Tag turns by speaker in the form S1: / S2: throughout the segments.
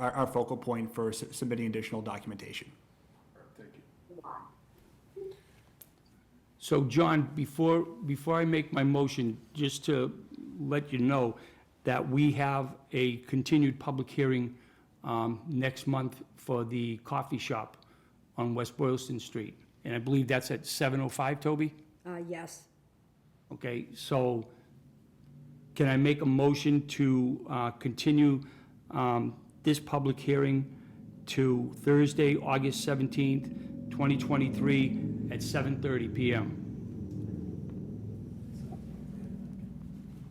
S1: our, our focal point for s- submitting additional documentation.
S2: So John, before, before I make my motion, just to let you know that we have a continued public hearing um, next month for the coffee shop on West Boylston Street. And I believe that's at 7:05, Toby?
S3: Uh, yes,
S2: Okay, so can I make a motion to uh, continue um, this public hearing to Thursday, August 17th, 2023, at 7:30 PM?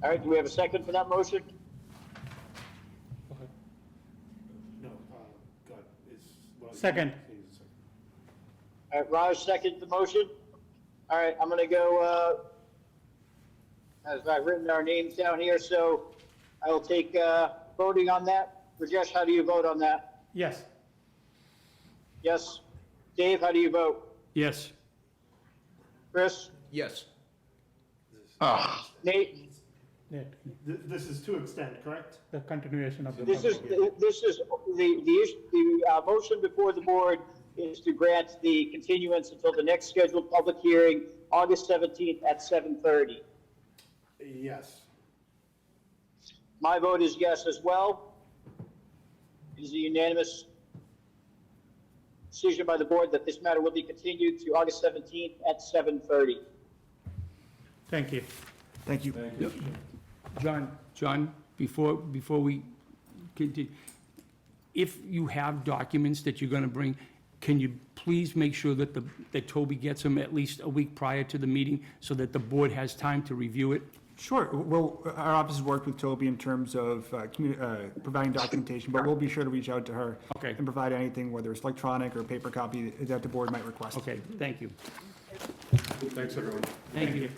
S4: All right, do we have a second for that motion?
S5: No, uh, God, it's. well,
S6: Second.
S5: it's a second.
S4: All right, Raj seconds the motion. All right, I'm gonna go, uh, as I've written our names down here, so I will take, uh, voting on that. Rajesh, how do you vote on that?
S6: Yes.
S4: Yes. Dave, how do you vote?
S2: Yes.
S4: Chris?
S7: Yes.
S4: Nate?
S6: The
S5: Th- This is to extend, correct?
S6: the continuation of the.
S4: This is,
S6: public-
S4: this is, the, the, issue- the, uh, motion before the board is to grant the continuance until the next scheduled public hearing, August seventeenth at seven thirty.
S5: Yes.
S4: My vote is yes as well. It is a unanimous decision by the board that this matter will be continued to August 17th at 7:30.
S6: Thank you.
S1: Thank you.
S2: John, John, before, before we continue, if you have documents that you're gonna bring, can you please make sure that the, that Toby gets them at least a week prior to the meeting so that the board has time to review it?
S1: Sure, well, our office has worked with Toby in terms of uh, commu- uh, providing documentation, but we'll be sure to reach out to her.
S2: Okay.
S1: And provide anything, whether it's electronic or paper copy, that the board might request.
S2: Okay, thank you.
S5: Thanks, everyone.
S2: Thank you.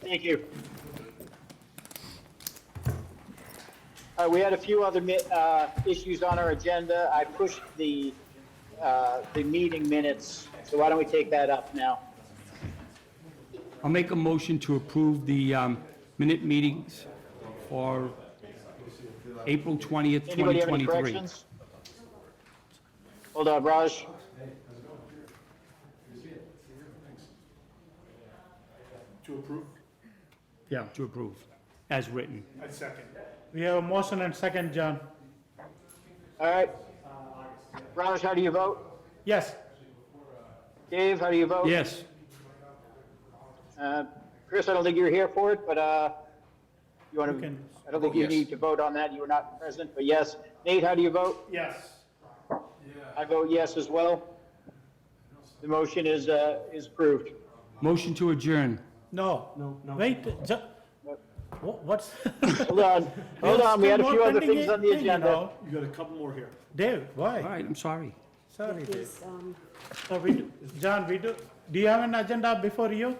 S4: Thank you. All right, we had a few other mi- uh, issues on our agenda. I pushed the, uh, the meeting minutes, so why don't we take that up now?
S2: I'll make a motion to approve the um, minute meetings for April 20th, 2023.
S4: Anybody have any corrections? Hold on, Raj.
S5: To approve?
S2: Yeah, to approve, as written.
S5: I second.
S6: We have a motion and second, John.
S4: All right. Raj, how do you vote?
S6: Yes.
S4: Dave, how do you vote?
S2: Yes.
S4: Uh, Chris, I don't think you're here for it, but uh, you want
S6: You
S4: to,
S6: can-
S4: I don't think you
S7: yes.
S4: need to vote on that. You were not present, but yes. Nate, how do you vote?
S5: Yes.
S4: I vote yes as well. The motion is, uh, is approved.
S2: Motion to adjourn.
S6: No. No, no. Wait, Ju- wha- what's?
S4: Hold on, hold on, we had a
S6: Still
S4: few
S6: more
S4: other
S6: pending
S4: things on
S6: thing,
S4: the
S6: you
S4: agenda.
S6: know.
S5: You got a couple more here.
S6: Dave,
S2: All
S6: why?
S2: right, I'm sorry.
S6: Sorry, Dave.
S3: is, um,
S6: So we, do- John, we do, do you have an agenda before you?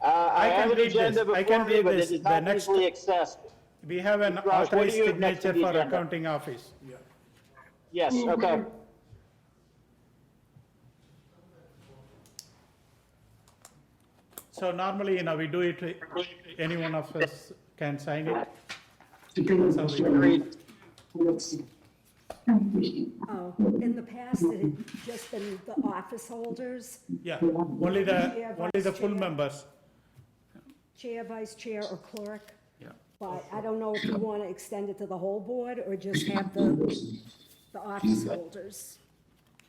S4: Uh, I
S6: I can
S4: have an
S6: read this.
S4: agenda
S6: I
S4: before
S6: can
S4: me,
S6: read
S4: but
S6: this.
S4: it is
S6: The
S4: not
S6: next-
S4: easily accessed.
S6: We have an
S4: Raj, what do
S6: authorized
S4: you have next to
S6: signature
S4: the
S6: for
S4: agenda?
S6: accounting office.
S4: Yes, okay.
S6: So normally, you know, we do it, any one of us can sign it. So we-
S4: Agreed.
S3: oh, in the past, it had just been the office holders,
S6: Yeah, only the,
S3: Yeah,
S6: only the
S3: vice
S6: full
S3: chair.
S6: members.
S3: chair, vice chair, or clerk.
S2: Yeah.
S3: But I don't know if you want to extend it to the whole board or just have the, the office holders.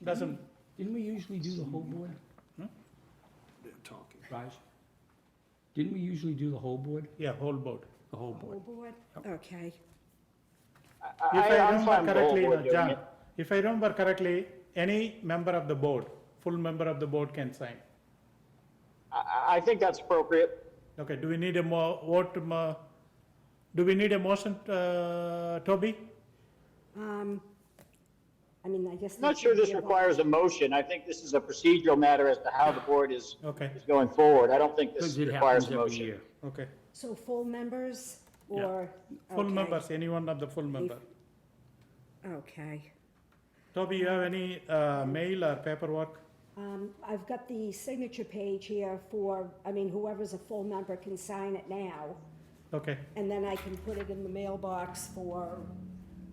S6: Doesn't,
S2: Didn't we usually do the whole board,
S5: They're talking.
S2: Raj? Didn't we usually do the whole board?
S6: yeah, whole board.
S2: The whole
S3: Whole
S2: board.
S3: board, okay.
S6: If
S4: I-
S6: I
S4: I'm fine with the
S6: remember
S4: whole
S6: correctly,
S4: board
S6: no,
S4: doing
S6: John,
S4: it.
S6: if I remember correctly, any member of the board, full member of the board can sign.
S4: I, I think that's appropriate.
S6: Okay, do we need a mo, what, mo- do we need a motion, uh, Toby?
S3: Um, I mean, I guess.
S4: I'm not sure this
S3: Yeah.
S4: requires a motion. I think this is a procedural matter as to how the board is,
S6: Okay.
S4: is going forward. I don't think this
S2: Because it
S4: requires
S2: happens
S4: a
S2: every
S4: motion.
S2: year.
S6: Okay,
S3: So full members
S6: Yeah.
S3: or?
S6: full
S3: okay,
S6: members, any one of the full member.
S3: Okay.
S6: Toby, you have any, uh, mail or paperwork?
S3: Um, I've got the signature page here for, I mean, whoever's a full member can sign it now.
S6: Okay,
S3: And then I can put it in the mailbox for